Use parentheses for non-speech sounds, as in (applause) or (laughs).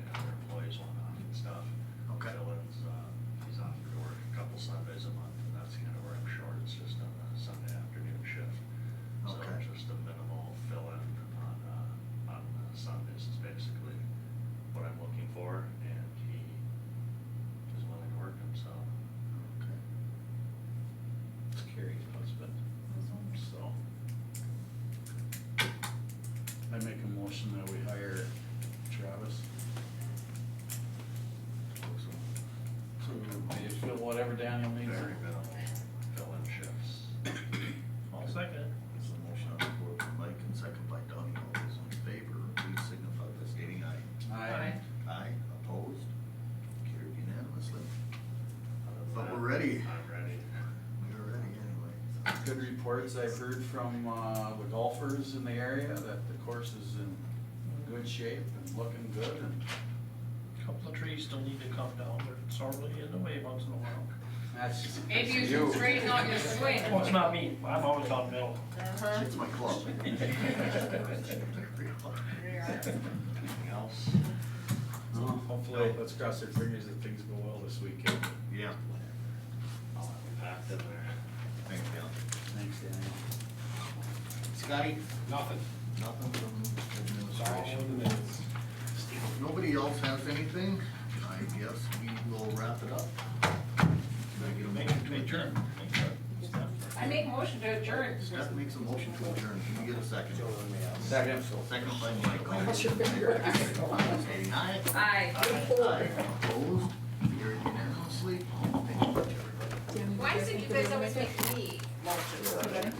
um, uh, whatever Daniel needs. Very minimal fill-in shifts. I'll second. There's a motion on the floor from Mike and second by Donnie. All those in favor, please signify by stating aye. Aye. Aye, opposed, carried unanimously. But we're ready. I'm ready. We are ready anyway. Good reports I've heard from, uh, the golfers in the area that the course is in good shape and looking good and Couple of trees still need to come down, they're sorely in the way once in a while. that's just. Maybe you You. should trade on (laughs) your swing. Well, it's not me, I'm always on metal. Uh-huh. It's my (laughs) club. Anything else? Hopefully, let's cross our fingers that things go well this weekend. Yeah. I'll have it packed in there. Thanks, Dale. Thanks, Daniel. Scotty? Nothing. Nothing from It's all administration. in the minutes. If Nobody else has anything? I guess we will wrap it up. Can I get a motion to adjourn? I make motion to adjourn. Steph makes a motion to adjourn. Can we get a second? Second. Second by Michael. All those in favor, Saying aye. Aye. Aye. Opposed? Carried unanimously. Thank you, everybody. Why is it you guys always make me motion?